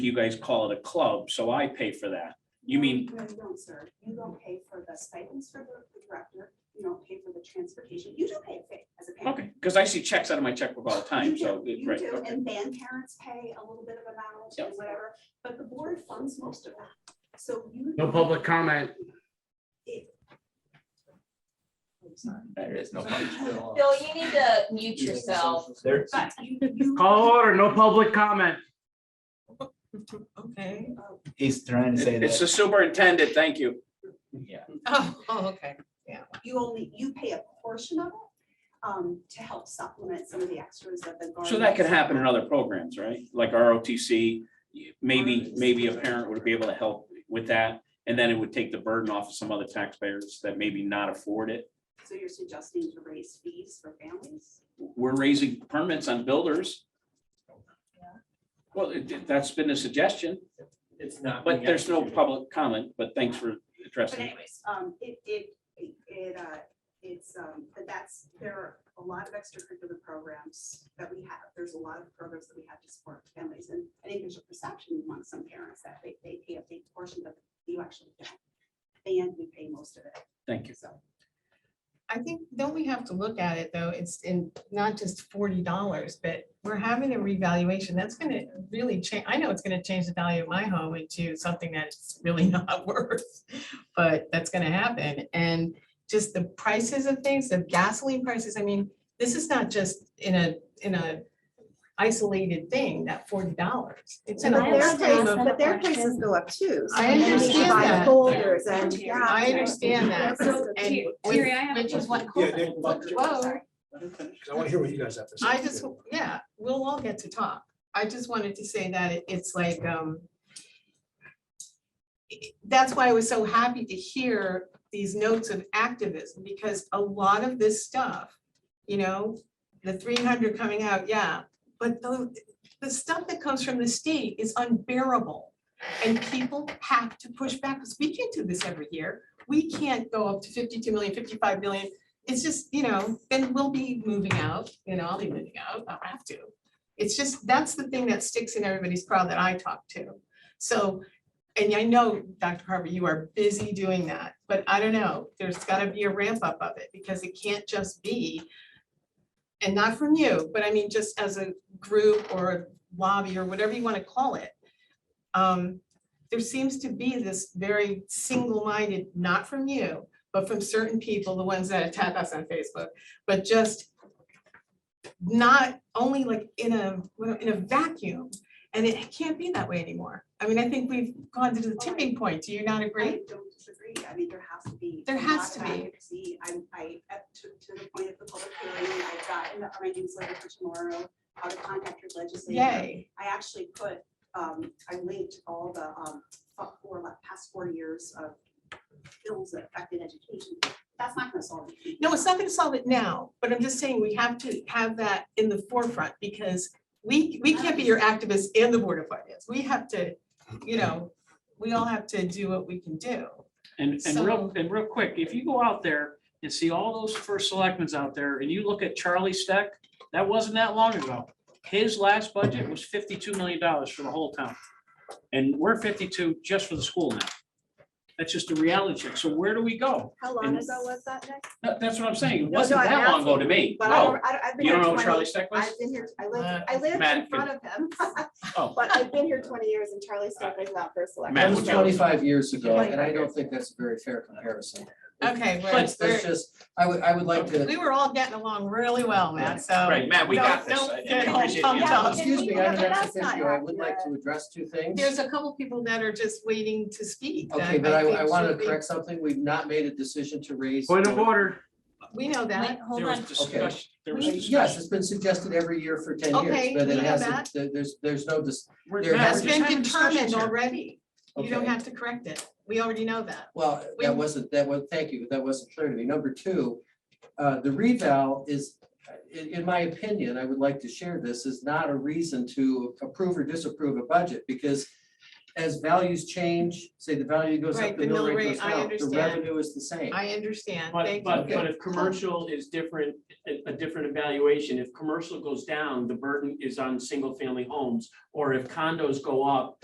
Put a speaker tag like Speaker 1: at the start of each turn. Speaker 1: you guys call it a club, so I pay for that. You mean-
Speaker 2: No, you don't, sir. You don't pay for the stipends for the the director. You don't pay for the transportation. You do pay fa- as a parent.
Speaker 1: Okay, because I see checks out of my checkbook all the time,
Speaker 2: You do,
Speaker 1: so,
Speaker 2: You
Speaker 1: right,
Speaker 2: do,
Speaker 1: okay.
Speaker 2: and then parents pay a little bit of amount
Speaker 1: Yep.
Speaker 2: and whatever, but the board funds most of that. So you.
Speaker 3: No public comment.
Speaker 2: I'm sorry.
Speaker 4: There is no.
Speaker 5: Bill, you need to mute yourself.
Speaker 4: There,
Speaker 2: But you, you.
Speaker 3: Call order, no public comment.
Speaker 6: Okay.
Speaker 4: he's trying to say
Speaker 1: It's
Speaker 4: that,
Speaker 1: the superintendent, thank you.
Speaker 4: yeah,
Speaker 6: Oh, oh, okay.
Speaker 2: You only, you pay a portion of it um, to help supplement some of the extras that the.
Speaker 1: So that could
Speaker 2: guardians-
Speaker 1: happen in other programs, right? Like ROTC, maybe, maybe a parent would be able to help with that. And then it would take the burden off of some other taxpayers that maybe not afford it.
Speaker 2: So you're suggesting to raise fees for families?
Speaker 1: We're raising permits on builders. Well, it- that's been a suggestion,
Speaker 7: It's not.
Speaker 1: but there's no public comment, but thanks for
Speaker 2: But
Speaker 1: addressing. it.
Speaker 2: anyways, um, it, it, it, uh, it's, um, but that's, there are a lot of extracurricular programs that we have. There's a lot of programs that we have to support families, and I think there's a perception among some parents that they, they pay a big portion, but you actually don't. And we pay most of it,
Speaker 1: Thank you.
Speaker 2: so.
Speaker 6: I think, don't we have to look at it, though, it's in, not just forty dollars, but we're having a revaluation, that's gonna really change, I know it's gonna change the value of my home into something that's really not worth, but that's gonna happen, and just the prices of things, the gasoline prices, I mean, this is not just in a, in a isolated thing, that forty dollars. It's in a
Speaker 8: But
Speaker 6: whole
Speaker 8: their
Speaker 6: stream of.
Speaker 8: prices, but their prices go up too. so
Speaker 6: I
Speaker 8: then they need to
Speaker 6: understand
Speaker 8: buy the
Speaker 6: that.
Speaker 8: Folders and,
Speaker 2: Yeah.
Speaker 8: yeah.
Speaker 6: I understand that.
Speaker 8: So,
Speaker 6: and
Speaker 5: Terry,
Speaker 6: with-
Speaker 5: Terry, I have a
Speaker 6: which is
Speaker 5: question.
Speaker 9: Yeah, Nick, but-
Speaker 6: Whoa.
Speaker 9: I want to hear what you guys have to say.
Speaker 6: I just, yeah, we'll all get to talk. I just wanted to say that it- it's like, um. i- That's why I was so happy to hear these notes of activism, because a lot of this stuff, you know, the three hundred coming out, yeah, but the, the stuff that comes from the state is unbearable. And people have to push back, because we can't do this every year. We can't go up to 52 million, 55 million it's just, you know, then we'll be moving out, you know, I'll be moving out, I'll have to. It's just, that's the thing that sticks in everybody's crowd that I talk to. So, and I know, Dr. Harper, you are busy doing that, but I don't know, there's gotta be a ramp up of it, because it can't just be. And not from you, but I mean, just as a group or a lobby or whatever you wanna call it. Um, there seems to be this very single-minded, not from you, but from certain people, the ones that attack us on Facebook, but just not only like in a, well, in a vacuum, and it can't be that way anymore. I mean, I think we've gone to the tipping point. Do you not
Speaker 2: I
Speaker 6: agree?
Speaker 2: don't disagree. I mean, there has to be.
Speaker 6: There
Speaker 2: a
Speaker 6: has
Speaker 2: lot
Speaker 6: to
Speaker 2: of
Speaker 6: be.
Speaker 2: advocacy. I, I, at- to, to the point of the public hearing, I've got in the- my newsletter for tomorrow, how to contact your legislator.
Speaker 6: Yay.
Speaker 2: I actually put, um, I linked all the, um, up for the past four years of bills that affected education. That's not gonna solve it.
Speaker 6: No, it's not gonna solve it now, but I'm just saying we have to have that in the forefront because we, we can't be your activists and the Board of Finance. We have to, you know, we all have to do what we can do.
Speaker 10: And, and
Speaker 6: So-
Speaker 10: real, and real quick, if you go out there and see all those first selectmen's out there and you look at Charlie Steck, that wasn't that long ago. His last budget was fifty-two million dollars for the whole town. And we're fifty-two just for the school now. That's just a reality check. So where do we go?
Speaker 8: How long ago was that, Nick?
Speaker 10: That- That's what I'm saying. It
Speaker 8: No,
Speaker 10: wasn't
Speaker 8: no, I'm
Speaker 10: that long ago
Speaker 8: asking
Speaker 10: to
Speaker 8: you,
Speaker 10: me.
Speaker 8: But I
Speaker 10: Oh,
Speaker 8: don't, I don't- I've been
Speaker 10: you
Speaker 8: here
Speaker 10: don't know what
Speaker 8: 20
Speaker 10: Charlie Steck was?
Speaker 8: I've been here, I
Speaker 6: Uh,
Speaker 8: lived, I lived in
Speaker 10: Matt
Speaker 8: front of him,
Speaker 10: Oh.
Speaker 8: but I've been here twenty years and Charlie Steck was not first elected.
Speaker 1: Matt,
Speaker 4: that
Speaker 1: would
Speaker 4: was
Speaker 1: you-
Speaker 4: twenty-five years ago, and I don't think that's a very fair comparison.
Speaker 6: Okay,
Speaker 4: Let's,
Speaker 6: whereas
Speaker 4: let's
Speaker 6: we're-
Speaker 4: just, I would, I would like uh, to,
Speaker 6: we were all getting along really well, Matt, so.
Speaker 1: Right, Matt, we
Speaker 6: Don't-
Speaker 1: got this.
Speaker 6: don't
Speaker 1: I- I
Speaker 6: get all
Speaker 1: appreciate the
Speaker 6: pumped
Speaker 1: answer.
Speaker 6: up.
Speaker 4: excuse me, I'm an
Speaker 8: That's not
Speaker 4: issue, I would like to address two things.
Speaker 6: There's a couple people that are just waiting to speak. that
Speaker 4: Okay, but I,
Speaker 6: think
Speaker 4: I want
Speaker 6: should
Speaker 4: to
Speaker 6: be-
Speaker 4: correct something, we've not made a decision to raise.
Speaker 3: Point of order.
Speaker 6: We know
Speaker 5: Wait,
Speaker 6: that.
Speaker 5: hold
Speaker 10: There was
Speaker 5: on.
Speaker 10: discussion. There was
Speaker 4: Yes,
Speaker 10: discussion.
Speaker 4: it's been suggested every year for ten
Speaker 6: Okay,
Speaker 4: years, but
Speaker 6: we
Speaker 4: it
Speaker 6: know
Speaker 4: hasn't,
Speaker 6: that.
Speaker 4: there- there's, there's no, dis-
Speaker 10: We're-
Speaker 4: There
Speaker 10: Matt,
Speaker 6: That's
Speaker 4: has
Speaker 10: we're
Speaker 6: been
Speaker 10: just having discussions
Speaker 6: determined
Speaker 10: here.
Speaker 6: already. You don't
Speaker 4: Okay.
Speaker 6: have to correct it. We already know that.
Speaker 4: Well,
Speaker 6: We-
Speaker 4: that wasn't, that was, thank you, that wasn't clear to me. Number two, uh, the reval is, in, in my opinion, I would like to share this, is not a reason to approve or disapprove a budget, because as values change, say the value goes
Speaker 6: Right,
Speaker 4: up, the mill rate goes
Speaker 6: I
Speaker 4: down, the
Speaker 6: understand.
Speaker 4: revenue is the same.
Speaker 6: I understand.
Speaker 10: But,
Speaker 6: Thank you.
Speaker 10: but,
Speaker 4: you.
Speaker 10: but if commercial is different, a, a different evaluation, if commercial goes down, the burden is on single-family homes. Or if condos go up,